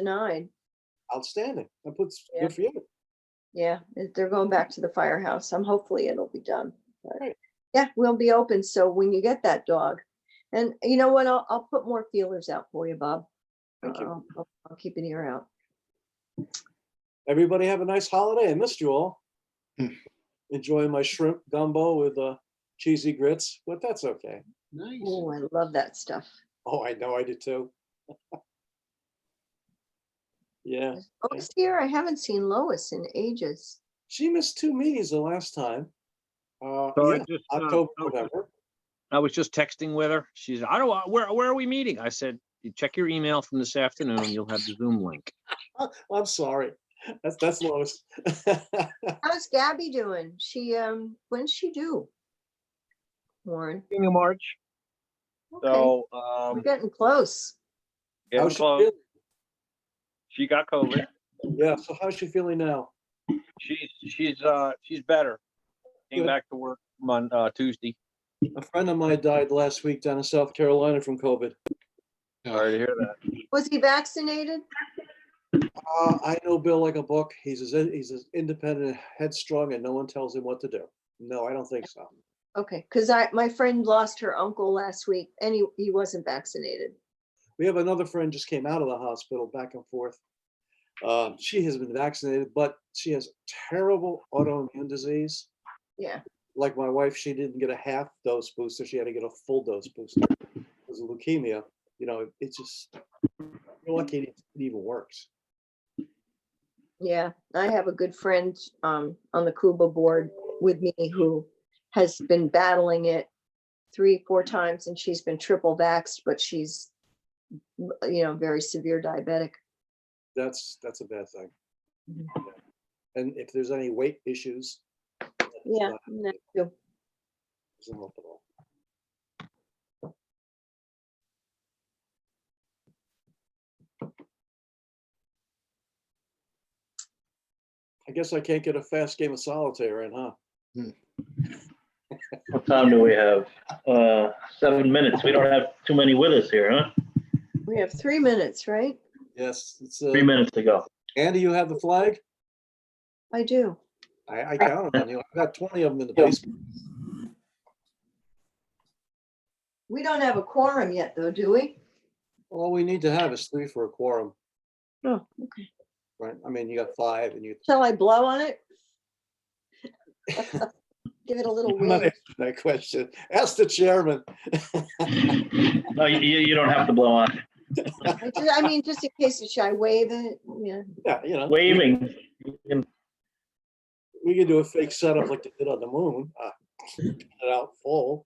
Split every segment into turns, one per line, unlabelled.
denied.
Outstanding. That puts,
Yeah.
good for you.
Yeah, it- they're going back to the firehouse. I'm hopefully it'll be done. but-
Great.
Yeah, we'll be open. So when you get that dog, and you know what, I'll, I'll put more feelers out for you, Bob.
Thank you.
I'll- I'll- I'll keep an ear out.
Everybody have a nice holiday. I missed you all.
Hmm.
Enjoying my shrimp gumbo with uh, cheesy grits, but that's okay.
Nice.
Oh, I love that stuff.
Oh, I know I did too. Yeah,
Lois here, I haven't seen Lois in ages.
she missed two meetings the last time. Uh,
So I
yeah,
just, uh,
October,
I was just-
November.
I was just texting with her. She's, I don't, where, where are we meeting? I said, "You check your email from this afternoon. You'll have the Zoom link.
I'm sorry. That's, that's Lois.
How's Gabby doing? She, um, when's she due? Warren,
beginning of March.
okay,
So,
we're
um,
getting close.
getting
How's she
close.
feeling?
She got COVID.
Yeah, so how's she feeling now?
She's, she's, uh, she's better. Came
Good.
back to work Mon, uh, Tuesday.
A friend of mine died last week down in South Carolina from COVID.
Sorry to hear that.
Was he vaccinated?
Uh, I know Bill like a book. He's as, he's as independent, and headstrong, and no one tells him what to do. No, I don't think so.
Okay, because I, my friend lost her uncle last week and he, he wasn't vaccinated.
We have another friend just came out of the hospital, back and forth. Um, she has been vaccinated, but she has terrible autoimmune disease.
Yeah,
Like my wife, she didn't get a half dose booster. She had to get a full dose booster because of leukemia. You know, it's just you're lucky it even works.
yeah. I have a good friend um on the Cuba board with me who has been battling it three, four times and she's been triple vaxxed, but she's you know, very severe diabetic.
That's that's a bad thing.
Mhm.
Yeah. And if there's any weight issues,
Yeah.
Wow.
no, no.
doesn't help at all. I guess I can't get a fast game of solitaire in, huh?
What time do we have? Uh, seven minutes. We don't have too many with us here, huh?
We have three minutes, right?
Yes, it's, uh,
Three minutes to go.
Andy, you have the flag?
I do.
I, I counted on you. I've got twenty of them in the basement.
We don't have a quorum yet though, do we?
All we need to have is three for a quorum,
Oh, okay.
right? I mean, you got five and you.
Shall I blow on it? Give it a little
I'm not
wing.
answering That question. Ask the chairman.
No, you, you you don't have to blow on.
I ju- I mean, just in case, should I wave it? Yeah,
Yeah, you know.
Waving. You can-
We could do a fake setup like they did on the moon. uh, Get it out full.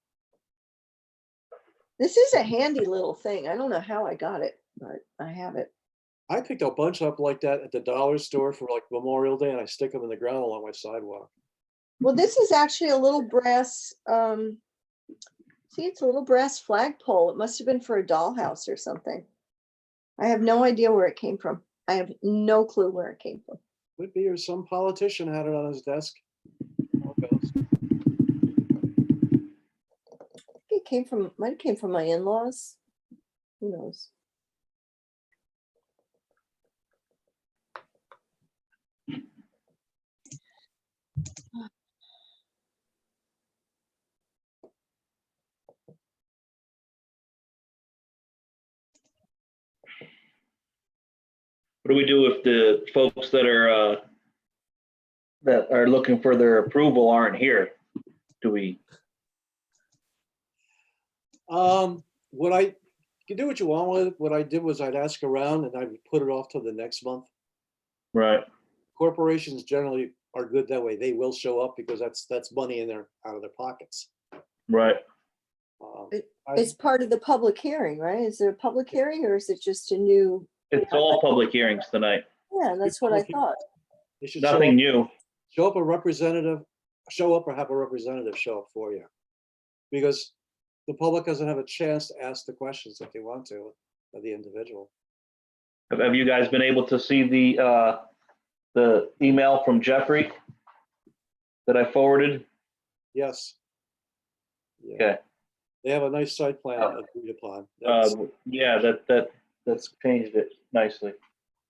this is a handy little thing. I don't know how I got it, but I have it.
I picked a bunch up like that at the dollar store for like Memorial Day and I stick them in the ground along my sidewalk.
Well,
Mm-hmm.
this is actually a little brass, um, see, it's a little brass flagpole. It must have been for a dollhouse or something. I have no idea where it came from. I have no clue where it came from.
Would be, or some politician had it on his desk. How it goes.
I think It came from, might have came from my in-laws. Who knows?
What do we do if the folks that are, uh, that are looking for their approval aren't here? Do we,
Um, what I, you do what you want with it. What I did was I'd ask around and I would put it off till the next month.
right,
Corporations generally are good that way. They will show up because that's, that's money in their, out of their pockets.
right.
Um,
It-
I-
It's part of the public hearing, right? Is it a public hearing or is it just a new?
It's all public hearings tonight.
Yeah, that's what I
public hearing.
thought.
they should show up.
Nothing new.
show up a representative, show up or have a representative show up for you. Because the public doesn't have a chance to ask the questions that they want to of the individual.
Have- Have you guys been able to see the, uh, the email from Jeffrey that I forwarded?
Yes. Yeah.
Okay.
They have a nice site plan
Uh,
agreed upon. That's-
Um, yeah, that, that, that's changed it nicely.